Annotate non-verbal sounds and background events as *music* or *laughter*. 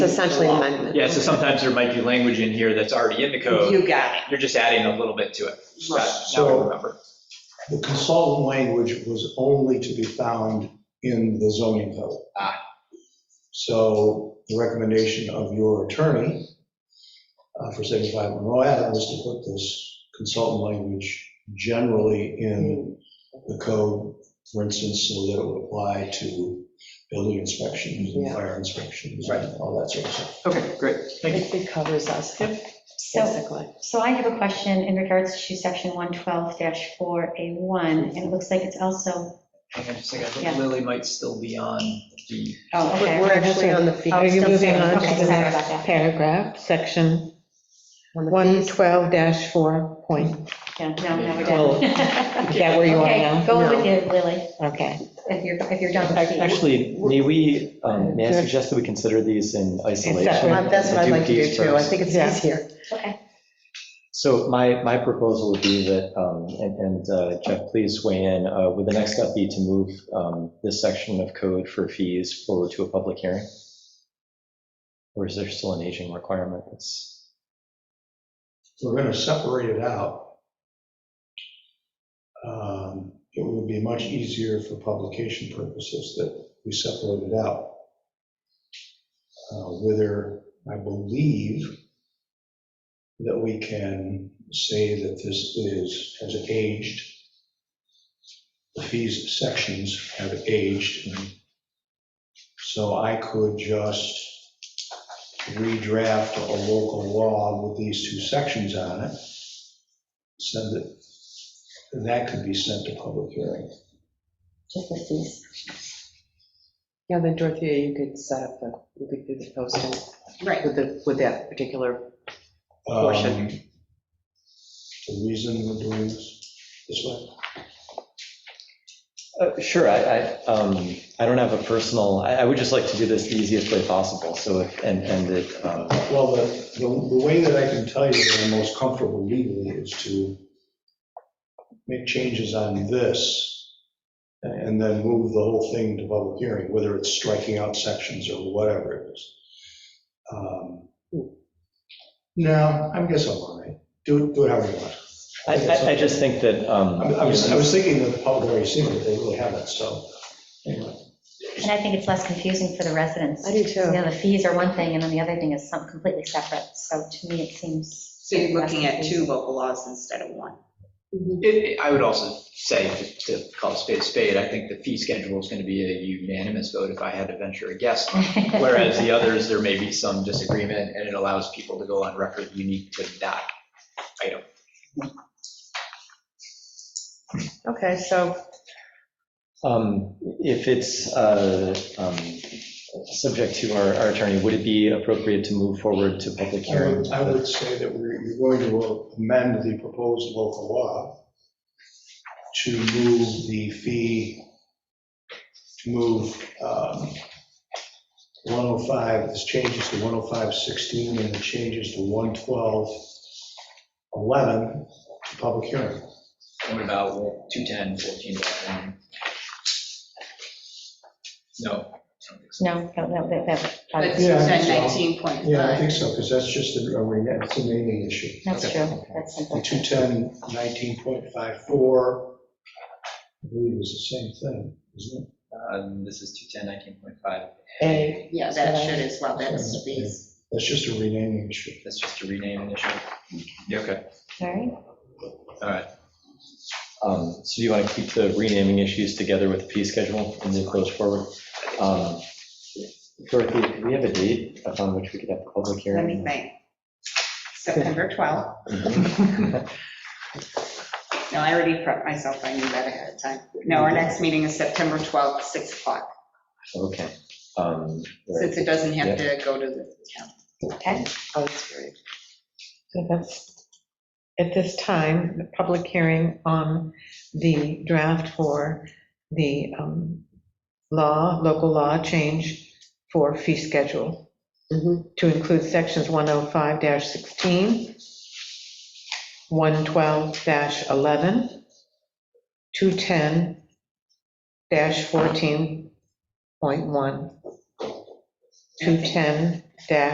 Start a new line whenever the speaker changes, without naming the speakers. It's essentially an amendment.
Yeah, so sometimes there might be language in here that's already in the code,
You got it.
you're just adding a little bit to it. Got it. Now I
So-
remember.
The consultant language was only to be found in the zoning code. So the recommendation of your attorney uh, for 75 Monroe Avenue was to put this consultant language generally in the code, for instance, so that it would apply to building inspections and
Yeah.
fire inspections
Right.
and all that sort of stuff.
Okay, great, thank you.
It it covers us,
So,
basically.
so I have a question in regards to section 112-4A1, and it looks like it's also,
Hang on just a second, I
Yeah.
think Lily might still be on the,
oh, okay.
We're actually on the fee.
Are you
Still
moving
there.
on
Okay,
to the
sorry
next
about that.
paragraph, section
on the fees.
112-4 point?
Yeah, no, no, we're
Oh.
done.
*laughs* Is that where you are
Okay,
now?
go with it, Lily,
Okay.
if you're, if you're done with
Ac-
the
Actually, may we, um, may I suggest that we consider these in isolation?
Uh, That's what I'd like to do
these
too. I
first?
think it's
Yeah.
easier.
Okay,
So my, my proposal would be that, um, and and, uh, Jeff, please weigh in, uh, would the next step be to move um, this section of code for fees forward to a public hearing? Or is there still an aging requirement that's,
We're going to separate it out. Um, It would be much easier for publication purposes that we separate it out. Uh, Whether, I believe that we can say that this is, has aged. The fees sections have aged. So I could just redraft a local law with these two sections on it, send it, and that could be sent to public hearing.
just the fees.
Yeah, then Dorothea, you could set up the, you could do the posting
Right.
with the, with that particular,
Um, The reason we're doing this this way.
Uh, sure, I, I, um, I don't have a personal, I, I would just like to do this the easiest way possible, so if, and, and it, um,
Well, the, the the way that I can tell you that I'm most comfortable legally is to make changes on this and then move the whole thing to public hearing, whether it's striking out sections or whatever it is. Um, No, I guess I'm all right. Do, it- do it however you want.
I, I I just think that. um,
I I was, I was thinking that the public already seen it, they really haven't, so. anyway.
And I think it's less confusing for the residents.
I do
You
too.
know, the fees are one thing, and then the other thing is something completely separate, so to me, it seems.
So you're looking at two
confusing.
local laws instead of one.
It- it- I would also say, to to call a spade a spade, I think the fee schedule is going to be a unanimous vote if I had to venture a guess.
*laughs*
Whereas the others, there may be some disagreement, and it allows people to go on record unique to that item.
Okay, so
Um, If it's uh, um, subject to our our attorney, would it be appropriate to move forward to public
I
hearing?
would- I would say that we're you're going to amend the proposed local law to move the fee, to move um, 105, this changes to 105.16 and it changes to 112.11 to public hearing.
And What about 210, 14.1? No. I don't think so.
*laughs* No, no, no, that, that-
But
that,
Yeah, I think so.
19.5.
Yeah, I think so, because that's just a a rena- it's a naming issue.
that's true, that's
The
simple.
210, 19.54, I believe is the same thing, isn't it?
Um, This is 210, 19.5.
A.
Yeah, that should as well, that's fees.
That's just a renaming issue.
That's just a rename initial. Yeah, Okay,
All right,
all right.
Um, So do you want to keep the renaming issues together with the fee schedule and then goes forward? Um, Dorothy, do we have a date upon which we could have the public
Let me
hearing?
think. September 12th. No, I already prepped myself, I knew that ahead of time. No, our next meeting is September 12th, 6 o'clock,
*laughs* Okay. um,
since it doesn't have to go to the town.
okay,
oh, that's right.
So that's, at this time, the public hearing on the draft for the um, law, local law change for fee schedule
Mhm.
to include sections 105-16, 112-11, 210-14.1, 210-14.11, dash